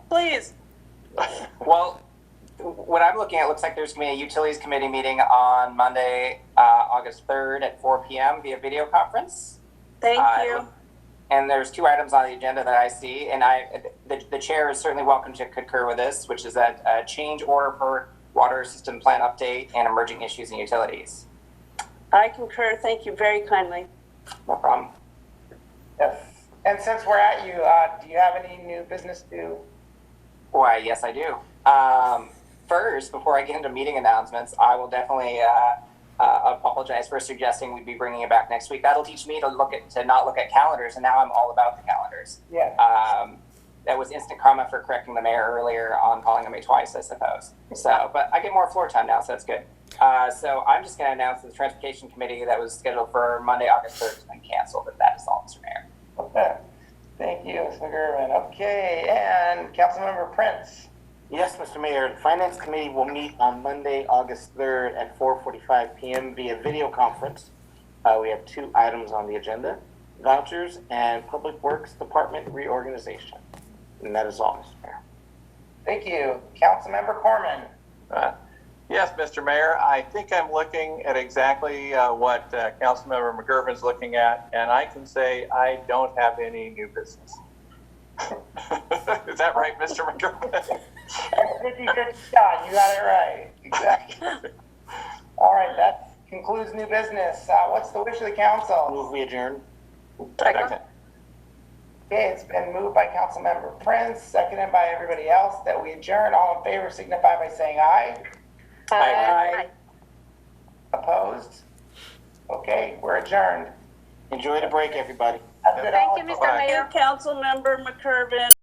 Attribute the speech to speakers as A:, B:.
A: please.
B: Well, what I'm looking at looks like there's going to be a utilities committee meeting on Monday, uh, August 3rd at 4 p.m. via video conference.
A: Thank
B: Uh,
A: you.
B: And there's two items on the agenda that I see, and I, the, the chair is certainly welcome to concur with this, which is that uh, change order for water system plan update and emerging issues in utilities.
A: I concur. Thank you very kindly.
B: No problem.
C: Yes. And since we're at you, uh, do you have any new business to?
B: Why, yes, I do. Um, first, before I get into meeting announcements, I will definitely uh, uh, apologize for suggesting we'd be bringing it back next week. That'll teach me to look at to not look at calendars, and now I'm all about the calendars.
C: Yeah.
B: Um, that was instant karma for correcting the mayor earlier on calling him a twice, I suppose. So, but I get more floor time now, so that's good. Uh, so I'm just going to announce that the transportation committee that was scheduled for Monday, August 3rd has been canceled, but that is all, Mr. Mayor.
C: Okay. Thank you, Mr. Gervin. Okay, and Councilmember Prince.
D: Yes, Mr. Mayor, the Finance Committee will meet on Monday, August 3rd at 4:45 PM via video conference. Uh, We have two items on the agenda, vouchers and Public Works Department reorganization. And that is all, Mr. Mayor.
C: Thank you, Councilmember Corman.
E: Uh, Yes, Mr. Mayor, I think I'm looking at exactly uh, what uh, Councilmember McGurven's looking at, and I can say I don't have any new business. Is that right, Mr. McGurven?
C: Good, good shot. You got it right. Exactly. All right, that concludes new business. Uh, what's the wish of the council?
D: Move we adjourn.
E: Second.
C: Okay, it's been moved by Councilmember Prince, seconded by everybody else that we adjourn. All in favor signify by saying aye.
A: Bye.
C: Opposed? Okay, we're adjourned.
D: Enjoy the break, everybody.
C: That's it.
F: Thank
C: All
F: you,
C: in favor?
F: Mr.
A: Thank
F: Mayor.
A: you, Councilmember McCurvin.